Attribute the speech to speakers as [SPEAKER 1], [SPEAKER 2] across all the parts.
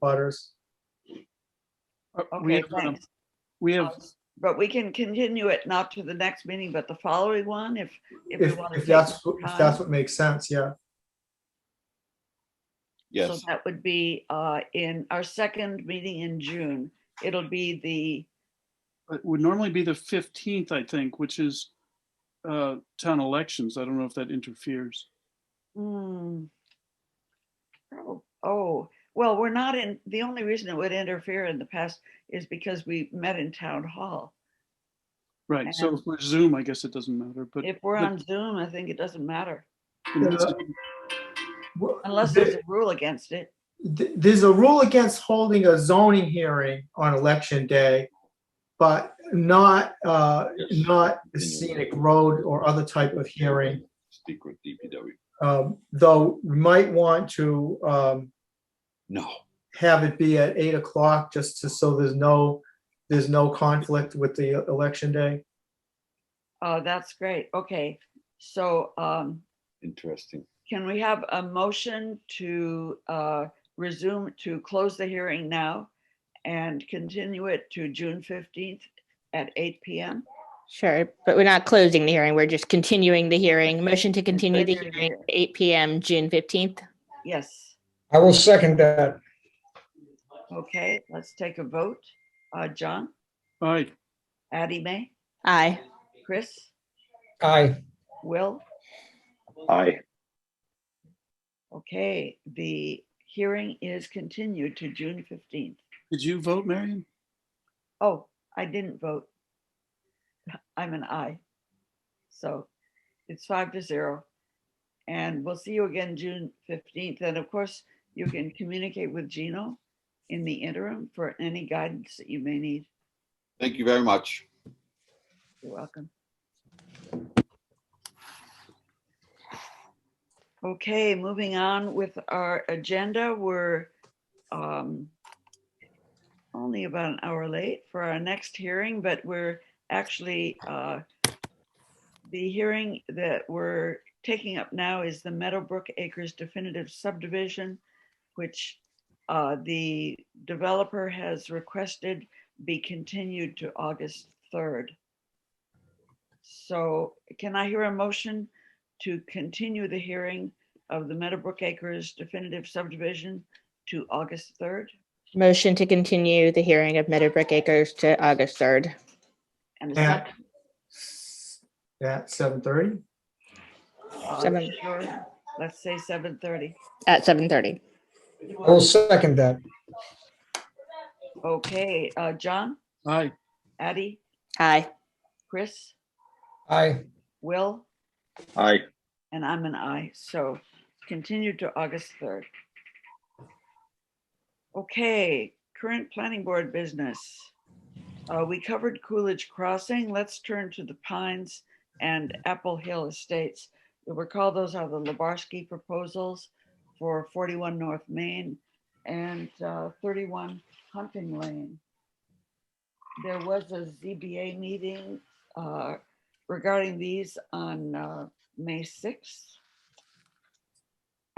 [SPEAKER 1] abutters.
[SPEAKER 2] Uh, we
[SPEAKER 3] Okay,
[SPEAKER 2] have, um,
[SPEAKER 3] thanks. Um,
[SPEAKER 2] We have,
[SPEAKER 3] But we can continue it not to the next meeting, but the following one if, if we
[SPEAKER 1] If,
[SPEAKER 3] want to.
[SPEAKER 1] if that's, if that's what makes sense, yeah.
[SPEAKER 3] So
[SPEAKER 4] Yes,
[SPEAKER 3] that would be uh, in our second meeting in June. It'll be the,
[SPEAKER 2] it uh, would normally be the 15th, I think, which is uh, town elections. I don't know if that interferes.
[SPEAKER 3] hmm. Oh, Oh, well, we're not in, the only reason it would interfere in the past is because we met in town hall.
[SPEAKER 2] Right, so if we're Zoom, I guess it doesn't matter, but
[SPEAKER 3] If we're
[SPEAKER 2] but-
[SPEAKER 3] on Zoom, I think it doesn't matter
[SPEAKER 2] in this-
[SPEAKER 1] Well,
[SPEAKER 3] unless
[SPEAKER 1] there-
[SPEAKER 3] there's a rule against it.
[SPEAKER 1] th- there's a rule against holding a zoning hearing on election day, but not, uh,
[SPEAKER 4] Yes.
[SPEAKER 1] not a scenic road or other type of hearing.
[SPEAKER 4] speak with DPW.
[SPEAKER 1] Um, though we might want to, um,
[SPEAKER 4] No,
[SPEAKER 1] have it be at eight o'clock just to, so there's no, there's no conflict with the election day.
[SPEAKER 3] Oh, that's great. Okay, so um,
[SPEAKER 4] interesting.
[SPEAKER 3] Can we have a motion to uh, resume, to close the hearing now and continue it to June 15th at 8 PM?
[SPEAKER 5] Sure, but we're not closing the hearing. We're just continuing the hearing. Motion to continue the
[SPEAKER 3] Continuing the
[SPEAKER 5] hearing
[SPEAKER 3] hearing.
[SPEAKER 5] to eight PM, June fifteenth.
[SPEAKER 3] Yes,
[SPEAKER 6] I will second that.
[SPEAKER 3] okay, let's take a vote. Uh, John,
[SPEAKER 2] All right,
[SPEAKER 3] Addie May,
[SPEAKER 5] Aye.
[SPEAKER 3] Chris,
[SPEAKER 6] Aye.
[SPEAKER 3] Will?
[SPEAKER 4] Aye.
[SPEAKER 3] Okay, the hearing is continued to June 15th.
[SPEAKER 2] did you vote, Marion?
[SPEAKER 3] Oh, I didn't vote. I'm an I. So it's five to zero. And we'll see you again June fifteenth. And of course, you can communicate with Gino in the interim for any guidance that you may need.
[SPEAKER 4] Thank you very much.
[SPEAKER 3] You're welcome. Okay, moving on with our agenda, we're um, only about an hour late for our next hearing, but we're actually, uh, the hearing that we're taking up now is the Meadowbrook Acres definitive subdivision, which uh, the developer has requested be continued to August 3rd. So can I hear a motion to continue the hearing of the Meadowbrook Acres definitive subdivision to August 3rd?
[SPEAKER 5] Motion to continue the hearing of Meadowbrook Acres to August third.
[SPEAKER 3] And a
[SPEAKER 1] At,
[SPEAKER 3] second,
[SPEAKER 1] at seven thirty?
[SPEAKER 3] uh,
[SPEAKER 5] seven.
[SPEAKER 3] sure, let's say 7:30.
[SPEAKER 5] At seven thirty.
[SPEAKER 6] I will second that.
[SPEAKER 3] Okay, uh, John,
[SPEAKER 2] Aye,
[SPEAKER 3] Addie,
[SPEAKER 5] Aye.
[SPEAKER 3] Chris,
[SPEAKER 6] Aye.
[SPEAKER 3] Will?
[SPEAKER 4] Aye.
[SPEAKER 3] And I'm an I, so continue to August 3rd. Okay, current planning board business. Uh, We covered Coolidge Crossing. Let's turn to the Pines and Apple Hill Estates. You'll recall those are the Lebarsky proposals for 41 North Main and uh, 31 Hunting Lane. There was a ZBA meeting uh, regarding these on uh, May 6th.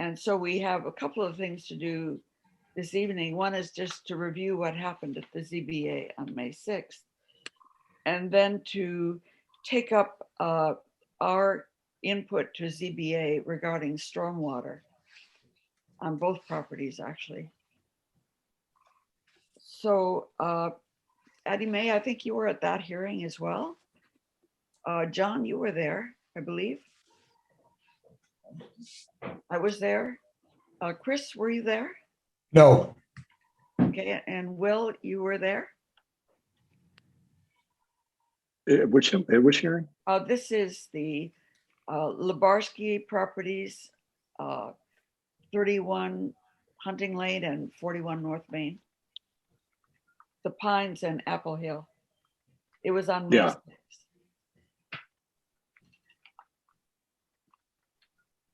[SPEAKER 3] And so we have a couple of things to do this evening. One is just to review what happened at the ZBA on May 6th. And then to take up uh, our input to ZBA regarding stormwater on both properties, actually. So uh, Addie May, I think you were at that hearing as well. Uh, John, you were there, I believe. I was there. Uh, Chris, were you there?
[SPEAKER 6] No.
[SPEAKER 3] Okay, and Will, you were there?
[SPEAKER 7] At Uh, which, at which hearing?
[SPEAKER 3] Uh, this is the, uh, Lebarsky Properties, uh, thirty-one Hunting Lane and forty-one North Main. The Pines and Apple Hill. It was on. May
[SPEAKER 7] Yeah.
[SPEAKER 3] 6th.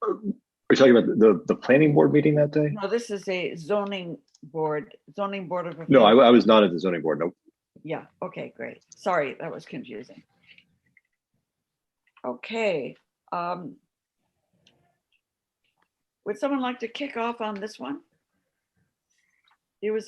[SPEAKER 7] Are you talking about the, the planning board meeting that day?
[SPEAKER 3] No, this is a zoning board, zoning board of.
[SPEAKER 7] No, I,
[SPEAKER 3] appeals.
[SPEAKER 7] I was not at the zoning board, no.
[SPEAKER 3] Yeah, okay, great. Sorry, that was confusing. Okay, um. Would someone like to kick off on this one?